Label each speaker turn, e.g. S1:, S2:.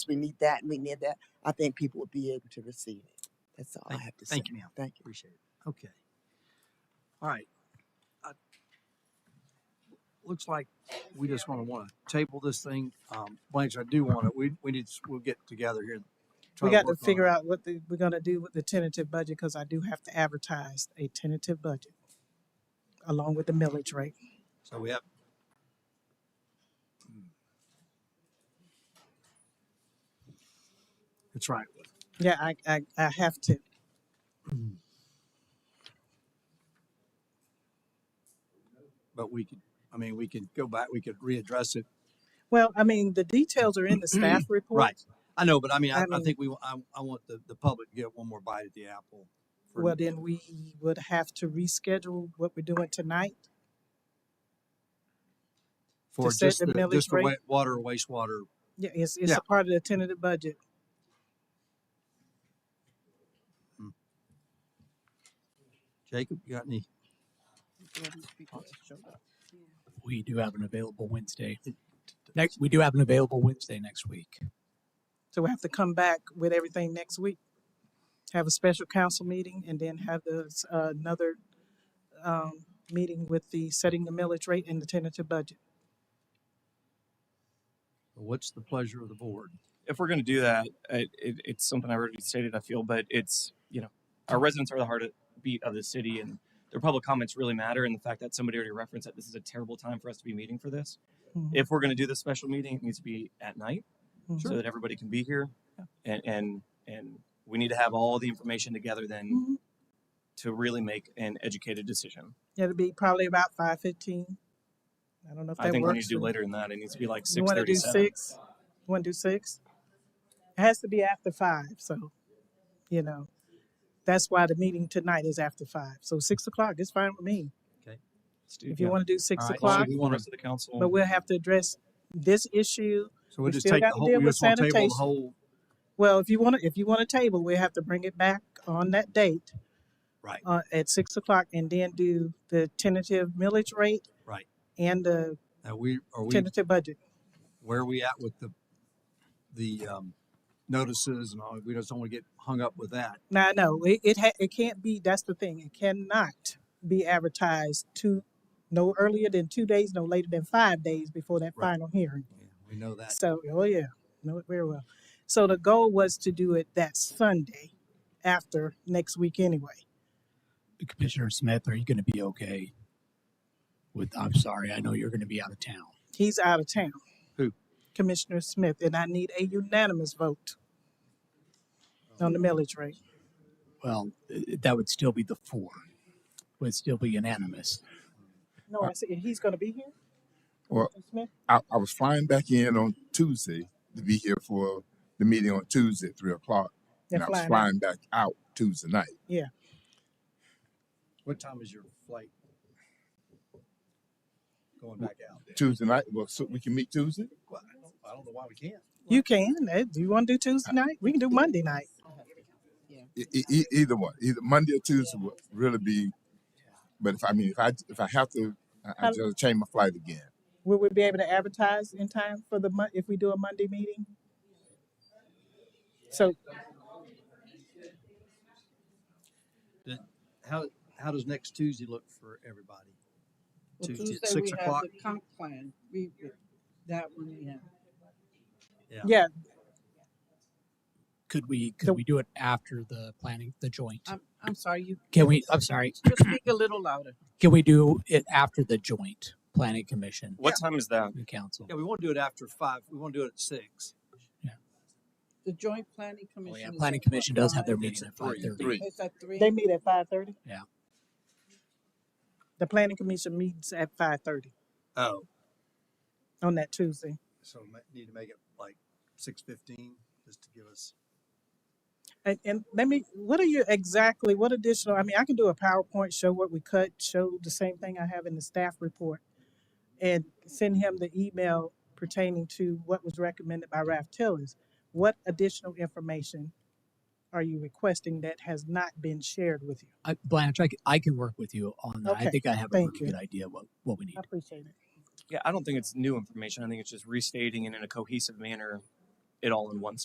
S1: we need that and we need that, I think people would be able to receive it. That's all I
S2: Thank,
S1: have to say.
S2: thank you, ma'am.
S1: Thank you.
S2: Appreciate it. Okay. All right. Uh, looks like we just want to want to table this thing. Um, Blanche, I do want to, we, we need, we'll get together here. and Try
S3: We
S2: to
S3: got to
S2: work on
S3: figure out what the, we're gonna do with the tentative budget, cause I do have to advertise a tentative budget along with the millage rate.
S2: So we have, Hmm. that's right.
S3: Yeah, I, I, I have to.
S2: But we could, I mean, we could go back, we could readdress it.
S3: Well, I mean, the details are in the staff report.
S2: Right. I know, but I mean, I,
S3: I
S2: I
S3: mean-
S2: think we, wa- I, I want the, the public to get one more bite at the apple. for-
S3: Well, then we would have to reschedule what we're doing tonight.
S2: For
S3: set
S2: just
S3: the
S2: the, just
S3: millage
S2: the
S3: rate.
S2: wa- water, wastewater.
S3: Yeah, it's, it's
S2: Yeah.
S3: a part of the tentative budget.
S2: Jacob, you got any?
S4: We do have an available Wednesday. Next, we do have an available Wednesday next week.
S3: So we have to come back with everything next week, have a special council meeting and then have this, uh, another, um, meeting with the setting the millage rate and the tentative budget.
S2: What's the pleasure of the board?
S5: if we're going to do that, it, it, it's something I already stated. I feel, but it's you know, our residents are the heartbeat of the city, and their public comments really matter. And the fact that somebody already referenced that this is a terrible time for us to be meeting for this.
S3: Mhm.
S5: If we're going to do this special meeting, it needs to be at night
S3: Mhm.
S5: so that everybody can be here, and and and we need to have all the information together
S3: Mhm.
S5: then to really make an educated decision.
S3: It'll be probably about five fifteen. I don't know if
S5: I
S3: that
S5: think we need
S3: works.
S5: to do
S3: for-
S5: later than that. It needs to be like
S3: You
S5: six
S3: want to do
S5: thirty-seven.
S3: six? You want to do six? It has to be after five, so, you know, that's why the meeting tonight is after five. So six o'clock is fine with me. If you want to do six
S2: All right, so
S3: o'clock,
S2: we
S5: the
S2: wanna-
S5: rest of the council,
S3: but we'll have to address this issue.
S2: So we'll
S3: We
S2: just
S3: still
S2: take the
S3: gotta
S2: whole,
S3: deal
S2: we
S3: with
S2: just want to table the
S3: sanitation.
S2: whole,
S3: Well, if you want to, if you want a table, we have to bring it back on that date
S2: right,
S3: uh, at six o'clock and then do the tentative millage rate
S2: right.
S3: and the
S2: Now, we, are we,
S3: tentative budget.
S2: where are we at with the, the, um, notices and all? We just don't want to get hung up with that.
S3: Now, no, it it, ha- it can't be. That's the thing. It cannot be advertised two, no earlier than two days, no later than five days before that
S2: Right.
S3: final hearing.
S2: Yeah, We know that.
S3: So, oh yeah, know it very well. So the goal was to do it that Sunday, after next week anyway.
S4: Commissioner Smith, are you going to be okay with, I'm sorry, I know you're going to be out of town.
S3: He's out of town.
S2: Who?
S3: Commissioner Smith, and I need a unanimous vote on the millage rate.
S4: Well, i- that would still be the four, would still be unanimous.
S2: Uh,
S3: No, I said he's going to be here.
S6: Well,
S3: Commissioner Smith.
S6: I, I was flying back in on Tuesday to be here for the meeting on Tuesday at three o'clock,
S3: They're
S6: and I was
S3: flying. out.
S6: flying back out Tuesday night.
S2: What time is your flight? Going back out.
S6: Tuesday night, well, so we can meet Tuesday.
S2: Well, I don't, I don't know why we can't.
S3: You can. eh, Do you want to do Tuesday night? We can do Monday night.
S6: E- e- e- either one, either Monday or Tuesday would really be. But if I mean, if I if I have to, I, I
S3: How-
S6: just change my flight again.
S3: Will we be able to advertise in time for the month if we do a Monday meeting? So
S2: How, how does next Tuesday look for everybody?
S7: Well,
S2: Tuesday at
S7: Tuesday, we
S2: six
S7: have
S2: o'clock?
S7: the comp plan. We, that one, we have.
S2: Yeah.
S3: yeah,
S4: Could we,
S3: So-
S4: could we do it after the planning, the joint?
S7: I'm, I'm sorry, you.
S4: Can we, I'm sorry,
S7: Just speak a little louder.
S4: can we do it after the joint planning commission
S5: what time is that?
S4: and council?
S2: Yeah, we want to do it after five. We want to do it at six.
S7: The joint planning
S4: Oh, yeah,
S7: commission. is
S4: planning
S7: at
S4: commission does have their
S7: five.
S4: meeting at five
S2: Three.
S4: thirty.
S6: Three.
S7: It's at three.
S3: they meet at five thirty.
S4: Yeah.
S3: The planning commission meets at five thirty
S2: Oh.
S3: on that Tuesday.
S2: So we might need to make it like six fifteen, just to give us.
S3: And, and let me, what are you exactly, what additional, I mean, I can do a PowerPoint, show what we cut, show the same thing I have in the staff report. And send him the email pertaining to what was recommended by Ralph Tillers. What additional information are you requesting that has not been shared with you?
S4: I, Blanche, I, c- I can work with you on that. I
S3: Okay,
S4: think I have a
S3: thank
S4: pretty
S3: you.
S4: good idea what, what we need.
S3: I appreciate it.
S5: Yeah, I don't think it's new information. I think it's just restating it in a cohesive manner it all in one spot.